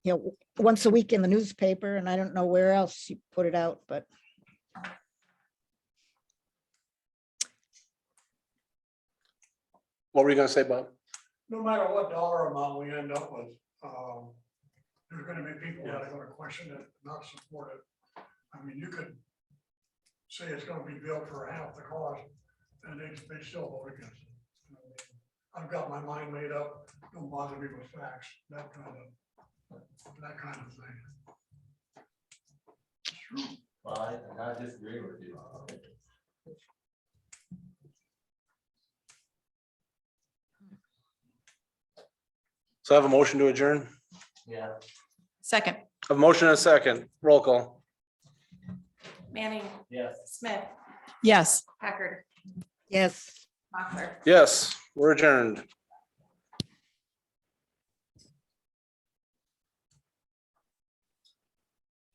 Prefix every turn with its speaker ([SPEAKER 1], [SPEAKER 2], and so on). [SPEAKER 1] you know, once a week in the newspaper and I don't know where else you put it out, but
[SPEAKER 2] What were you gonna say, Bob?
[SPEAKER 3] no matter what dollar amount we end up with, um, there's gonna be people that are gonna question it, not support it. I mean, you could say it's gonna be built for half the cost, and they, they still vote against it. I've got my mind made up, don't bother me with facts, that kind of, that kind of thing.
[SPEAKER 4] Well, I, I disagree with you.
[SPEAKER 2] So I have a motion to adjourn.
[SPEAKER 4] Yeah.
[SPEAKER 5] Second,
[SPEAKER 2] I have a motion and a second. Roll call.
[SPEAKER 6] Manning,
[SPEAKER 4] Yes.
[SPEAKER 6] Smith,
[SPEAKER 5] yes.
[SPEAKER 6] Packard,
[SPEAKER 1] yes.
[SPEAKER 6] Mochler.
[SPEAKER 2] Yes, we're adjourned.